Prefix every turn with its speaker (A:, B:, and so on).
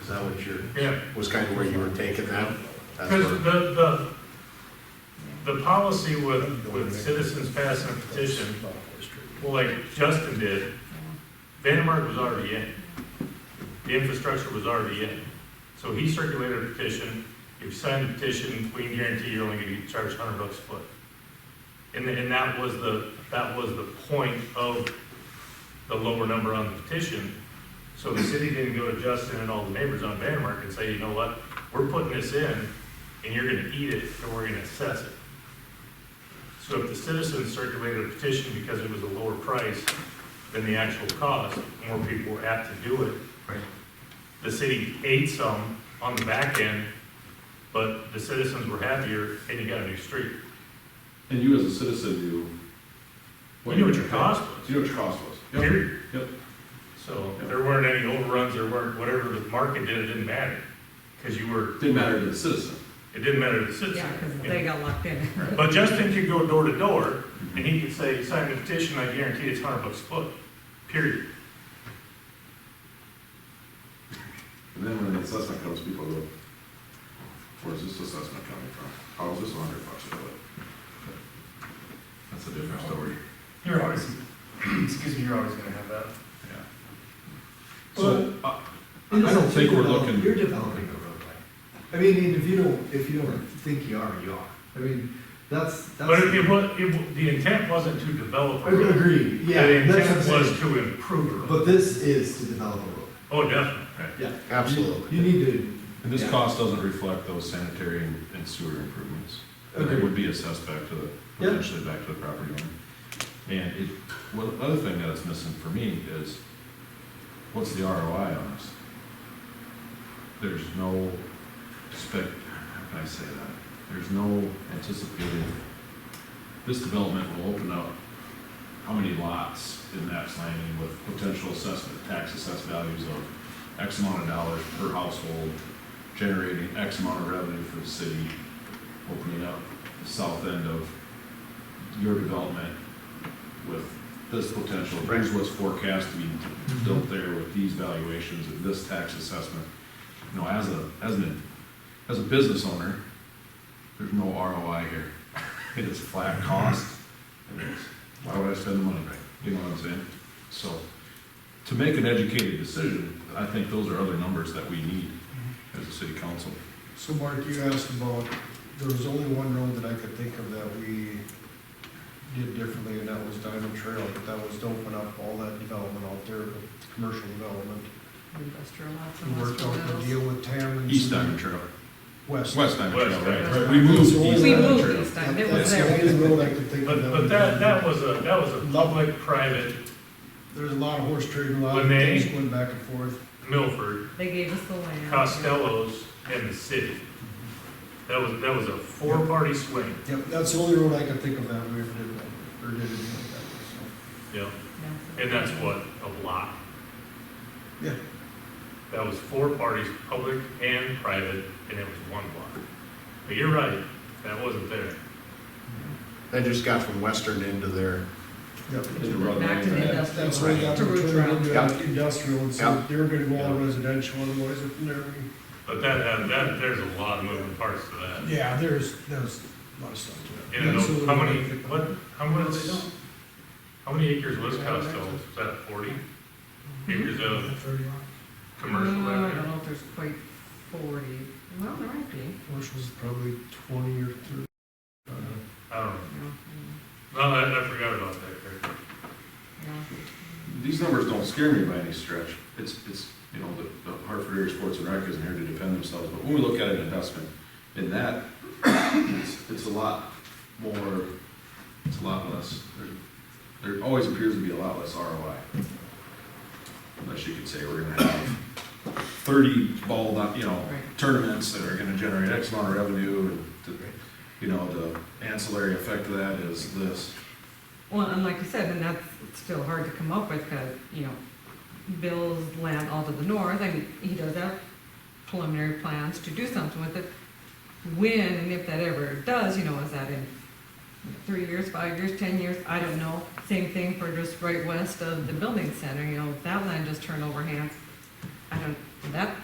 A: that what you're,
B: Yeah,
A: was kind of where you were taking that? That's
B: because
A: where,
B: the, the, the policy with, with citizens passing a petition, well, like Justin did, Vandenberg was already in. The infrastructure was already in. So he circulated a petition, if you sign the petition, we can guarantee you're only gonna get charged hundred bucks a foot. And, and that was the, that was the point of the lower number on the petition. So the city didn't go to Justin and all the neighbors on Vandermark and say, you know what, we're putting this in, and you're gonna eat it, and we're gonna assess it. So if the citizens circulated a petition because it was a lower price than the actual cost, more people were apt to do it.
A: Right.
B: The city ate some on the back end, but the citizens were happier, and you got a new street.
C: And you as a citizen knew.
B: You knew what your
C: you were
B: cost
C: paying.
B: was,
C: You knew what your cost was. Yep.
B: period.
C: Yep.
B: So there weren't any overruns, there weren't, whatever the market did, it didn't matter, because you were,
C: Didn't matter to the citizen.
B: it didn't matter to the
D: Yeah,
B: citizen.
D: because they got locked in.
B: But Justin could go door to door, and he could say, sign the petition, I guarantee it's hundred bucks a foot, period.
C: And then when the assessment comes, people go, where's this assessment coming from? How is this a hundred bucks a foot? That's a different story.
E: You're always, excuse me, you're always gonna have that.
C: So, I, I don't think we're looking,
F: You're developing a roadway. I mean, and if you don't, if you don't think you are, you are. I mean, that's, that's.
B: But it was, it, wa- the intent wasn't to develop
F: I
B: a road.
F: agree, yeah.
B: The
F: that's what
B: intent
F: I'm
B: was
F: saying.
B: to improve a road.
F: But this is to develop a road,
B: Oh, definitely.
F: yeah.
A: Absolutely.
F: You need to.
C: and this
F: yeah.
C: cost doesn't reflect those sanitary and and sewer improvements. And It
F: Agreed.
C: would be assessed back to the,
F: Yeah.
C: potentially back to the property owner. And it, well, the other thing that is missing for me is, what's the ROI on this? There's no spec, how can I say that? There's no anticipated, this development will open up how many lots in Naps Landing with potential assessment, tax assessed values of X amount of dollars per household, generating X amount of revenue for the city, opening up the south end of your development with this potential, here's what's forecast to be built there with these valuations and this tax assessment. You know, as a, as an, as a business owner, there's no ROI here. It is flat cost. It is, Why would I spend the money? You know what I'm saying? So, to make an educated decision, I think those are other numbers that we need as a city council.
G: So Mark, you asked about, there was only one road that I could think of that we did differently, and that was Diamond Trail, but that was to open up all that development out there, commercial development.
D: Industrial lots and
G: We worked out the deal
D: industrial
G: with Tammons.
C: East Diamond Trail,
G: West.
C: West Diamond Trail,
B: West
C: right,
B: Diamond.
C: right, we moved
G: We
C: East
D: We
C: Diamond
D: moved
C: Trail.
D: this time, it was
G: That's
D: there.
G: the only road I could think of.
B: But, but that, that was a, that was a public-private
G: There's a lot of horse trading, a lot of
B: When they-
G: things going back and forth.
B: Milford,
D: They gave us the land.
B: Costello's, and the city. That was, that was a four-party swing,
G: Yep, that's the only road I could think of that we ever did, that, or did anything like
B: you know,
D: Yeah.
B: and that's what, a lot.
G: that, so, yeah.
B: That was four parties, public and private, and it was one block. But you're right, that wasn't there.
A: That just got from western into there.
G: Yep.
C: Into Rutland,
D: Back to the
C: right?
G: That's that's why
D: industrial,
G: that
D: to
G: turned
D: Root Route.
G: into industrial, and so
A: Yeah.
G: they were gonna go all residential otherwise, and there we.
B: But that, that, that- there's a lot of moving parts to that.
G: Yeah, there's, there's a lot of stuff to
B: And those- how many, what, how much, how many acres was Costello's? Is that forty acres of commercial
D: No, I
B: out
D: don't
B: there?
D: know if there's quite forty, well, there might be. you
G: Commercial's probably twenty or thirty. uh,
B: I don't know.
D: know,
B: No, I, I forgot about that, Kirk.
D: yeah.
C: These numbers don't scare me by any stretch. It's, it's, you know, the, the Hartford Area Sports and Rec isn't here to defend themselves, but when we look at an investment in that, it's, it's a lot more, it's a lot less. There- There always appears to be a lot less ROI. Unless you could say we're gonna have thirty ball, you know,
D: Right.
C: tournaments that are gonna generate X amount of revenue, and, the- you know, the ancillary effect of that is this.
D: Well, and like you said, and that's still hard to come up with, because, you know, Bill's land all to the north, I mean, he does have preliminary plans to do something with it. When and if that ever does, you know, is that in three years, five years, ten years, I don't know. Same thing for just right west of the building center, you know, that land just turned over hands. I don't, that